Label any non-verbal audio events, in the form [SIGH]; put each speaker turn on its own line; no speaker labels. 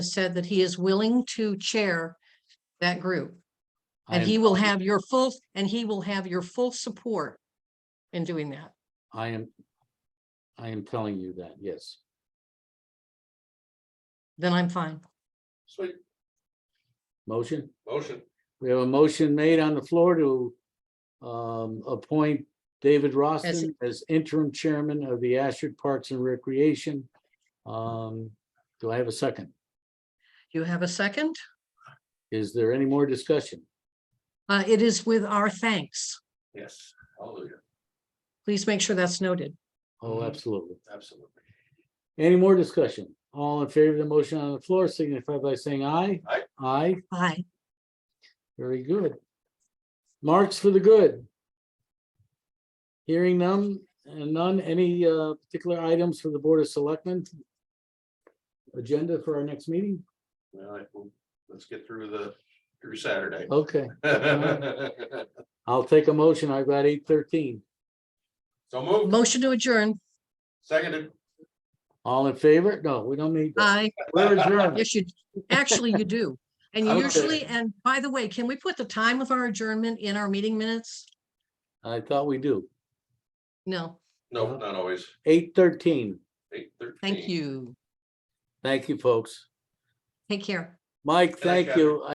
said that he is willing to chair that group. And
I-
he will have your full, and he will have your full support in doing that.
I am, I am telling you that, yes.
Then I'm fine.
Sweet,
Motion,
motion,
we have a motion made on the floor to um, appoint David Roston as interim chairman of the Ashford Parks and Recreation. Um, do I have a second?
You have a second?
Is there any more discussion?
Uh, it is with our thanks.
yes, hallelujah,
Please make sure that's noted.
Oh,
Mm-hmm.
Mhm.
absolutely.
absolutely.
Any more discussion? All in favor of the motion on the floor signify by saying aye.
Aye.
Aye,
Aye.
very good. Marks for the good. Hearing none, and none, any uh, particular items for the Board of Selectmen? Agenda for our next meeting?
All right, well, let's get through the, through Saturday.
Okay, I'll take a motion. I've got eight thirteen.
[LAUGHS] So move,
Motion to adjourn.
seconded.
All in favor? No, we don't need. that.
Aye.
We're adjourned.
Yes, Uh, you, actually you do. And you
Okay.
usually, and by the way, can we put the time of our adjournment in our meeting minutes?
I thought we do.
No,
No, not always,
Eight thirteen.
eight thirteen.
thank you.
Thank you, folks.
Take care.
Mike,
Thanks,
thank you.